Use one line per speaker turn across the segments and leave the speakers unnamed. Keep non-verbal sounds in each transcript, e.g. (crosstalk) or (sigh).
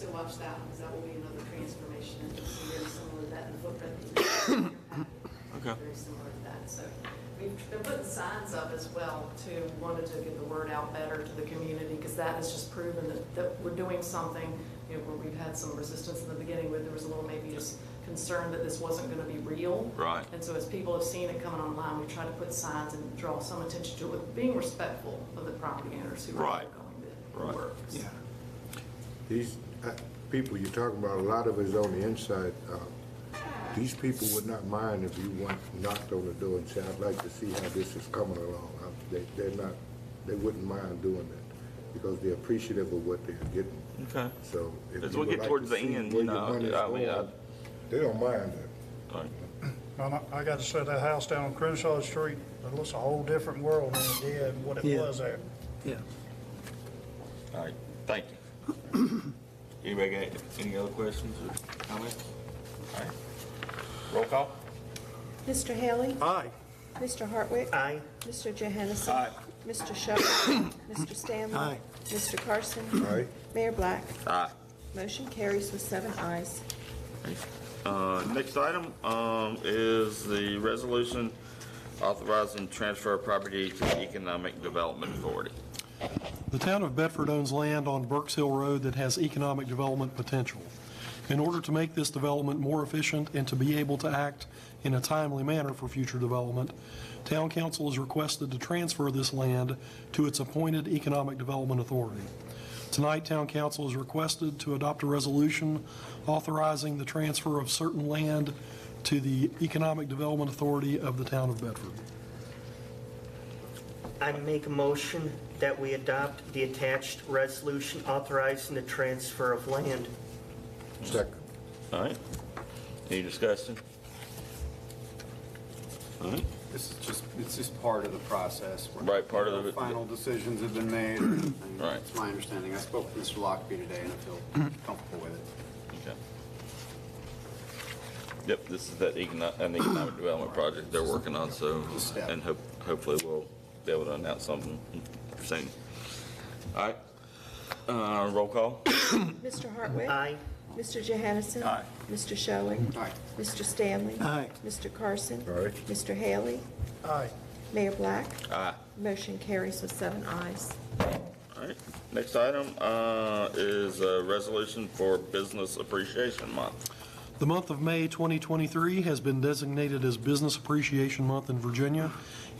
to watch that, because that will be another transformation, and it's very similar to that, the footprint. that's in your packet,
Okay.
Very similar to that, so we've been putting signs up as well, too, wanted to get the word out better to the community, because that has just proven that, that we're doing something, you know, where we've had some resistance in the beginning, where there was a little maybe just concern that this wasn't gonna be real.
Right.
And so as people have seen it coming online, we try to put signs and draw some attention to it, being respectful of the property owners who are
Right.
going to
Right.
work.
Yeah.
These uh, people you're talking about, a lot of it's on the inside. uh, These people would not mind if you went, knocked on the door and said, I'd like to see how this is coming along. Uh, they- They're not, they wouldn't mind doing that because they're appreciative of what they're getting.
Okay.
So if
As
you
we
would
get
like to
towards the
see
end,
where
you
your
know,
money's
I mean,
going,
I-
They don't mind that.
Like,
And I- I gotta say, that house down on Crenshaw Street, it looks a whole different world than it did, and what it
Yeah.
was there.
Yeah.
All right, thank you. (clears throat) Anybody got any other questions or comments? All right. Roll call?
Mr. Haley?
Aye.
Mr. Hartwick?
Aye.
Mr. Johansson?
Aye.
(coughs)
Mr. Shuffle? Mr. Stanley?
Aye.
Mr. Carson?
Aye.
Mayor Black?
Aye.
Motion carries with seven ayes.
Uh, Next item um, is the resolution authorizing transfer of property to the Economic Development Authority.
The town of Bedford owns land on Burks Hill Road that has economic development potential. In order to make this development more efficient and to be able to act in a timely manner for future development, town council is requested to transfer this land to its appointed economic development authority. Tonight, town council is requested to adopt a resolution authorizing the transfer of certain land to the economic development authority of the town of Bedford.
I make a motion that we adopt the attached resolution authorizing the transfer of land.
Second.
All right. Any discussion? All right.
This is just, it's just part of the process. We're-
Right, part of the-
Final decisions have been made. and
(clears throat) Right.
It's my understanding. I spoke to Mr. Lockby today, and I feel comfortable with it.
Okay. Yep, this is that econo- an economic development project they're working on, so,
step.
and hope, hopefully we'll be able to announce something soon. All right, uh, roll call?
Mr. Hartwick?
Aye.
Mr. Johansson?
Aye.
Mr. Shelling?
Aye.
Mr. Stanley?
Aye.
Mr. Carson?
Aye.
Mr. Haley?
Aye.
Mayor Black?
Aye.
Motion carries with seven ayes.
All right, next item, uh, is a resolution for Business Appreciation Month.
The month of May 2023 has been designated as Business Appreciation Month in Virginia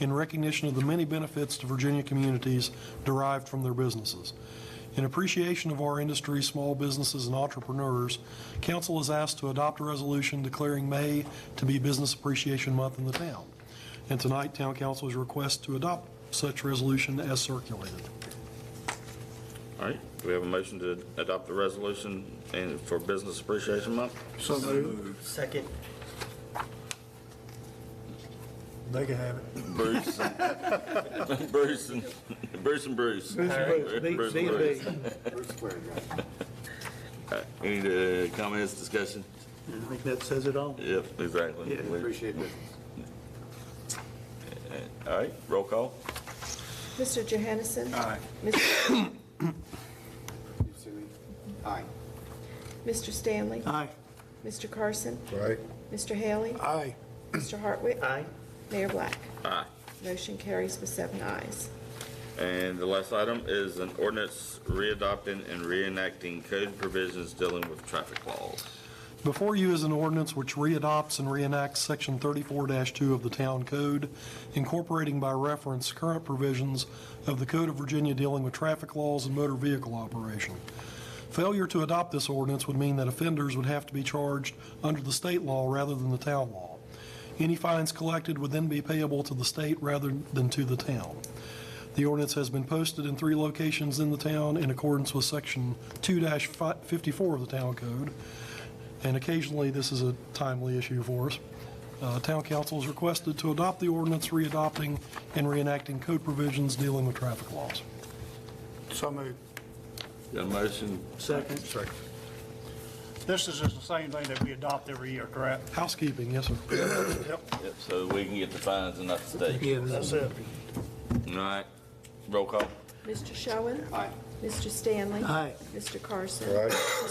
in recognition of the many benefits to Virginia communities derived from their businesses. In appreciation of our industry, small businesses, and entrepreneurs, council is asked to adopt a resolution declaring May to be Business Appreciation Month in the town. And tonight, town council is requested to adopt such resolution as circulated.
All right, do we have a motion to adopt the resolution and, for Business Appreciation Month?
So moved.
Second.
They can have it.
Bruce. and- (laughs) Bruce and, Bruce and Bruce. Bruce and Bruce.
Bruce Square, yeah.
All right, Any uh, comments, discussion?
I think that says it all.
Yep, exactly.
Yeah.
Appreciate it.
All right, roll call.
Mr. Johansson? Aye. Mr. (coughs)
You see me? Aye.
Mr. Stanley?
Aye.
Mr. Carson?
Right?
Mr. Haley?
Aye.
Mr. Hartwick?
Aye.
Mayor Black?
Aye.
Motion carries with seven ayes.
And the last item is an ordinance readopting and reenacting code provisions dealing with traffic laws.
Before you is an ordinance which readopts and reenacts Section 34-2 of the Town Code, incorporating by reference current provisions of the Code of Virginia dealing with traffic laws and motor vehicle operation. Failure to adopt this ordinance would mean that offenders would have to be charged under the state law rather than the town law. Any fines collected would then be payable to the state rather than to the town. The ordinance has been posted in three locations in the town in accordance with Section 2-54 of the Town Code, and occasionally this is a timely issue for us. Uh, Town council is requested to adopt the ordinance readopting and reenacting code provisions dealing with traffic laws.
So moved.
Got a motion?
Second.
This is just the same thing that we adopt every year, correct?
Housekeeping, yes, sir.
Yep.
Yep, so we can get the fines and not the state.
Yeah.
That's it.
All right, roll call.
Mr. Showen?
Aye.
Mr. Stanley?
Aye.
Mr. Carson?
Aye.